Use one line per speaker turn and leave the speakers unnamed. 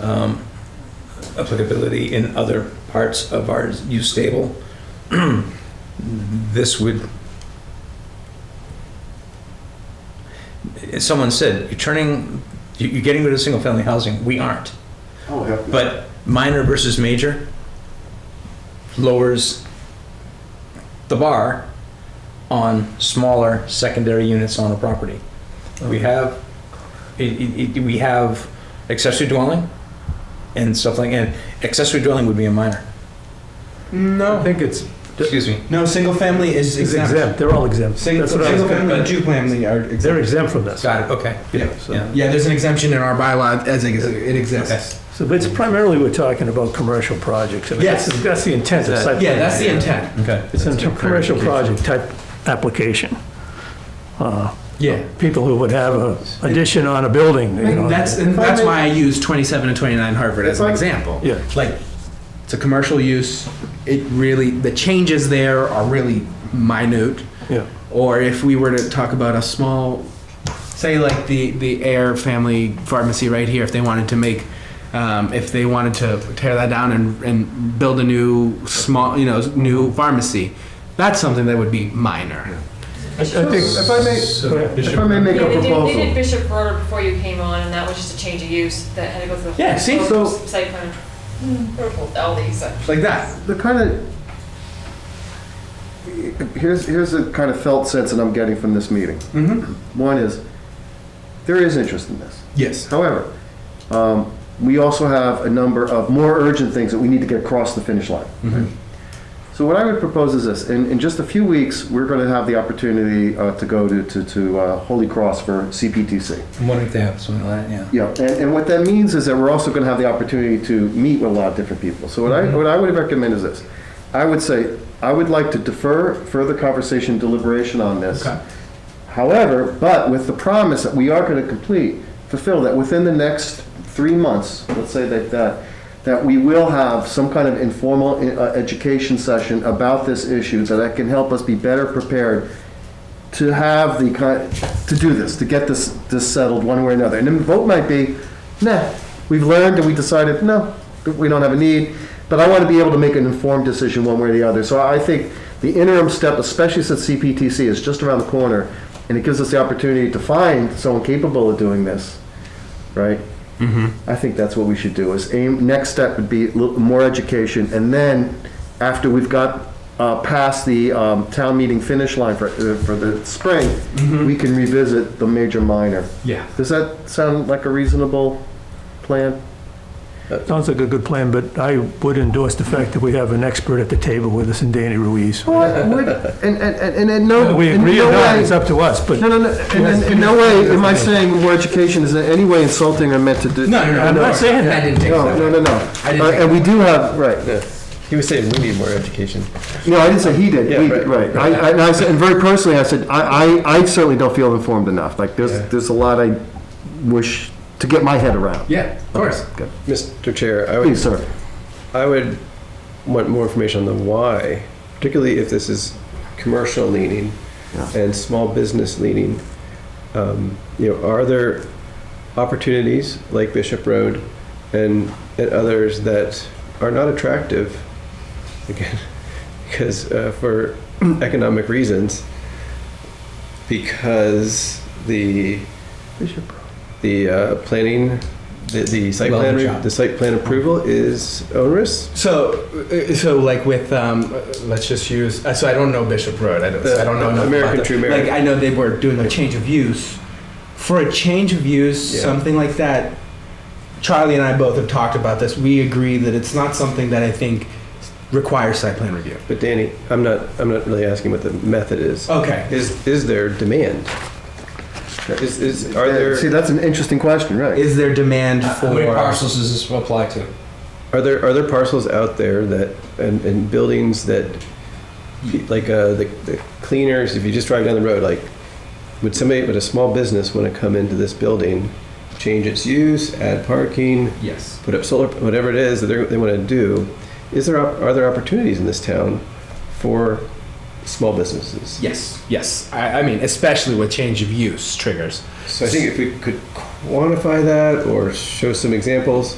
um, applicability in other parts of our use table. This would. Someone said, you're turning, you- you're getting rid of single-family housing. We aren't.
Oh, heck. no.
But minor versus major lowers the bar on smaller secondary units on a property. We have, it- it- it- we have accessory dwelling and stuff like, and accessory dwelling would be a minor.
I
No,
think it's
Excuse me.
no, single family is
it's
exempt.
exempt, they're all exempt.
Single,
That's what I was-
single family and two family are
They're
exempt.
exempt from this.
Got it, okay.
Yeah, so-
Yeah.
Yeah, there's an exemption in our bylaw as it it exists.
So, but it's primarily, we're talking about commercial projects. I mean,
Yes.
that's- That's the intent of site.
Yeah,
plan.
that's the intent.
Okay.
It's a commercial project type application. Uh,
Yeah.
People who would have a addition on a building, you know.
That's, and that's why I use 27 and 29 Harvard as an example.
Yeah.
Like, it's a commercial use, it really, the changes there are really minute.
Yeah.
Or if we were to talk about a small, say like the, the Air Family Pharmacy right here, if they wanted to make, um, if they wanted to tear that down and, and build a new small, you know, new pharmacy, that's something that would be minor.
I think,
If I may,
go ahead.
if I may make
Yeah,
a
they did, they did
proposal.
Bishop Road before you came on, and that was just a change of use that had to go through. the
Yeah, see,
so-
Site plan, approval, all these, uh,
Like that.
The kind of, here's, here's the kind of felt sense that I'm getting from this meeting.
Mm-hmm.
One is, there is interest in this.
Yes.
However, um, we also have a number of more urgent things that we need to get across the finish line. So what I would propose is this, in, in just a few weeks, we're going to have the opportunity uh, to go to, to, to uh, Holy Cross for CPTC.
I'm wondering if they have something like that, yeah.
Yeah, and, and what that means is that we're also gonna have the opportunity to meet with a lot of different people. So what I, what I would recommend is this. I would say, I would like to defer further conversation deliberation on this.
Okay.
However, but with the promise that we are gonna complete, fulfill that within the next three months, let's say that, that, that we will have some kind of informal uh, education session about this issue so that can help us be better prepared to have the, ki- to do this, to get this, this settled one way or another. And then the vote might be, nah, we've learned and we decided, no, we don't have a need. But I want to be able to make an informed decision one way or the other. So I think the interim step, especially since CPTC is just around the corner, and it gives us the opportunity to find someone capable of doing this, right? I think that's what we should do, is aim, next step would be a little more education, and then, after we've got uh, past the um, town meeting finish line for, uh, for the spring,
Mm-hmm.
we can revisit the major minor.
Yeah.
Does that sound like a reasonable plan?
sounds like a good plan, but I would endorse the fact that we have an expert at the table with us in Danny Ruiz.
Well, I would- and, and, and and no.
Whether we
in
agree
no
or not,
way-
it's up to us, but
No, no, no, and- and in no way am I saying more education is in any way insulting or meant to do.
No, no, no.
I'm
no,
not saying that.
I didn't take
No,
that.
no, no, no.
I didn't
Uh,
think-
And we do have, right.
He was saying we need more education.
No, I didn't say he did,
Yeah,
we did, right. I, I- and I said, and very personally, I said, I, I, I certainly don't feel informed enough, like, there's, there's a lot I wish to get my head around.
Yeah, of course.
Mr. Chair, I would,
Please, sir.
I would want more information on the why, particularly if this is commercial leaning
Yeah.
and small business leaning. Um, You know, are there opportunities like Bishop Road and, and others that are not attractive? Again, because uh, for economic reasons, because the the uh, planning, the, the site
Well,
plan,
good
re-
job.
the site plan approval is onerous.
So, uh, so like with, um, uh, let's just use. Uh, so I don't know Bishop Road. I don't. so I don't know
The
enough
American
about
True
the-
Mary.
Like I know they were doing a change of use. For a change of use,
Yeah.
something like that. Charlie and I both have talked about this. We agree that it's not something that I think requires site plan review.
But Danny, I'm not, I'm not really asking what the method is.
Okay.
Is, is there demand? Is, is, are
See,
there,
that's an interesting question, right?
Is there demand
Uh,
for?
How many parcels does this apply to?
are there, are there parcels out there that, and, and buildings that, like, uh, the the cleaners, if you just drive down the road, like, would somebody, would a small business want to come into this building, change its use, add parking,
Yes.
put up solar, whatever it is that they're- they want to do? Is there, op- are there opportunities in this town for small businesses?
Yes. Yes. I, I mean, especially with change of use triggers.
So I think if we could quantify that or show some examples,